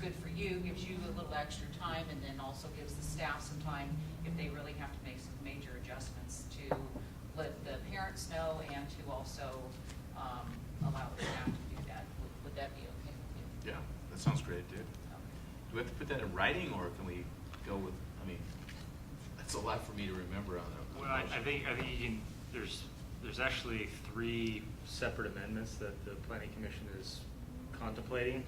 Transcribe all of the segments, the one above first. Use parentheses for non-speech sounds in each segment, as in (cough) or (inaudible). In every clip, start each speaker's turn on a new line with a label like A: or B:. A: good for you, gives you a little extra time, and then also gives the staff some time if they really have to make some major adjustments to let the parents know and to also um, allow the staff to do that. Would- Would that be okay with you?
B: Yeah, that sounds great, dude.
A: Okay.
B: Do we have to put that in writing, or can we go with, I mean, that's a lot for me to remember on a- on
C: Well,
B: a.
C: I, I
B: motion.
C: think, I think you can, there's, there's actually three separate amendments that the planning commission is contemplating.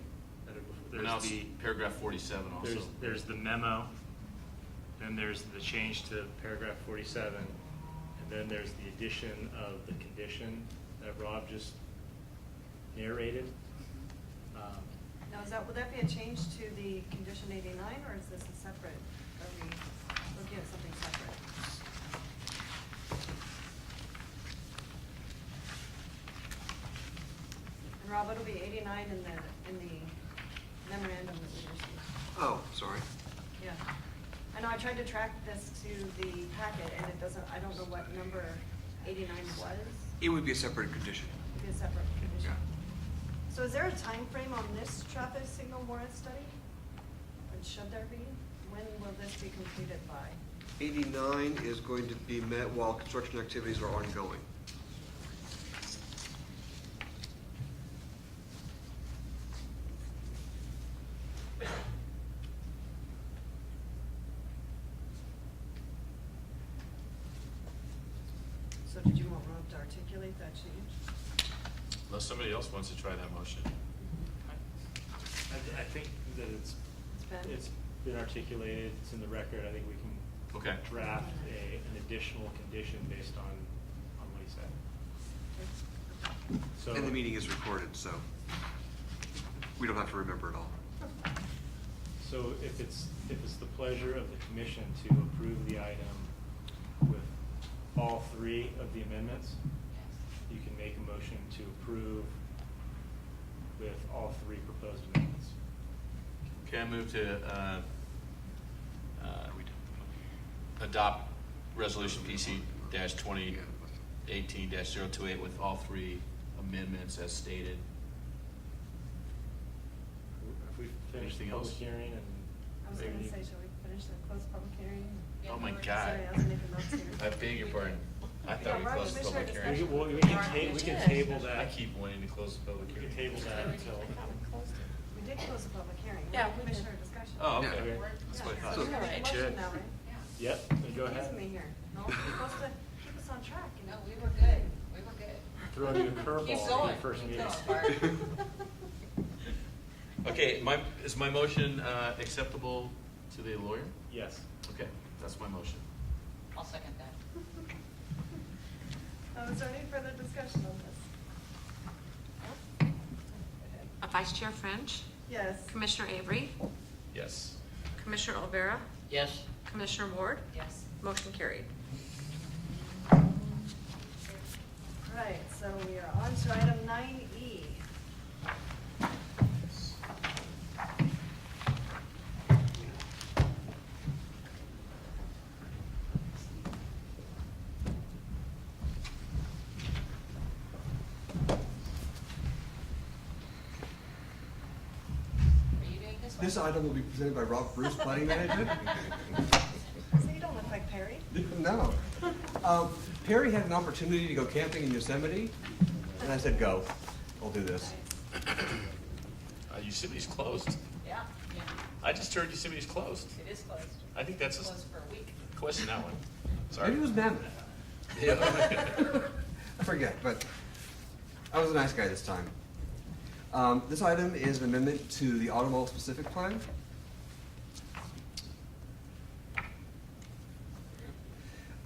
C: that are-
B: Well, Now, it's
C: There's the,
B: paragraph forty-seven also.
C: there's, there's the memo, then there's the change to paragraph forty-seven, and then there's the addition of the condition that Rob just narrated. Um,
D: Now, is that, would that be a change to the condition eighty-nine, or is this a separate, are we looking at something separate? And Rob, it'll be eighty-nine in the, in the memorandum that we received.
E: Oh, sorry.
D: Yeah. I know, I tried to track this to the packet, and it doesn't, I don't know what number eighty-nine was.
E: It would be a separate condition.
D: It'd be a separate condition.
E: Yeah.
D: So is there a time frame on this traffic signal warrant study? And should there be? When will this be completed by?
E: 89 is going to be met while construction activities are ongoing.
D: So did you want Rob to articulate that change?
B: Unless somebody else wants to try that motion.
C: I, th- I think that it's,
D: It's been-
C: it's been articulated, it's in the record, I think we can
B: Okay.
C: draft a, an additional condition based on, on what he said. So.
E: And the meeting is recorded, so we don't have to remember it all.
C: So if it's, if it's the pleasure of the commission to approve the item with all three of the amendments,
A: Yes.
C: you can make a motion to approve with all three proposed amendments.
B: Okay, I move to, uh, uh, adopt resolution PC dash twenty eighteen dash zero two eight with all three amendments as stated.
C: If we finish the
B: Anything
C: public
B: else?
C: hearing and.
D: I was gonna say, shall we finish the closed public hearing?
A: Yeah.
B: Oh my
A: Sorry,
B: God.
D: Sorry, I was making notes here.
B: I beg your pardon. I thought we
D: Yeah, right,
B: closed the public
D: Commissioner
C: We
B: hearing.
D: discussion.
C: can, well, we can
A: Right.
C: ta- we can table that.
B: I keep wanting to close the public
C: We
B: hearing.
C: can table that until.
D: We did close the public hearing.
F: Yeah, we did.
D: Commissioner discussion.
B: Oh,
E: Yeah.
B: okay.
D: Yeah,
B: That's what I thought.
D: so we have a
F: Alright.
D: motion now, right?
C: Yep, go ahead.
D: Excuse me here. No, you're supposed to keep us on track, you
A: No,
D: know?
A: we were good, we were good. (laughs)
C: Throwing you a
A: Keep
C: curveball in
A: going,
C: the first
A: keep
C: meeting.
A: going, Bart.
B: (laughs) Okay, my, is my motion uh, acceptable to the lawyer?
C: (laughs) Yes.
B: Okay, that's my motion.
A: I'll second that.
D: Uh, Is there any further discussion on this?
F: Uh, Vice Chair French,
D: Yes.
F: Commissioner Avery,
B: Yes.
F: Commissioner Olvera,
A: Yes.
F: Commissioner Ward,
A: Yes.
F: motion carried.
D: Right, so we are on to item nine E.
A: Are you doing this one?
E: This item will be presented by Rob Bruce, planning manager. (laughs)
D: So you don't look like Perry.
E: No. Um, Perry had an opportunity to go camping in Yosemite, and I said, go, I'll do this.
B: Uh, Yosemite's closed.
A: (laughs) Yeah, yeah,
B: I just heard Yosemite's closed.
A: it is closed.
B: I think that's a
A: Closed for a week.
B: question, that one.
E: Maybe it was Mammoth. (laughs)
B: (laughs)
A: (laughs)
B: Yeah.
E: I forget, but I was a nice guy this time. Um, this item is an amendment to the Automall specific plan.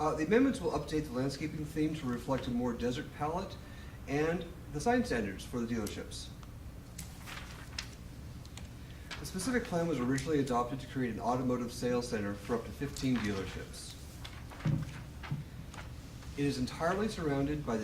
E: Uh, the amendments will update the landscaping theme to reflect a more desert palette and the sign standards for the dealerships. The specific plan was originally adopted to create an automotive sales center for up to 15 dealerships. It is entirely surrounded by the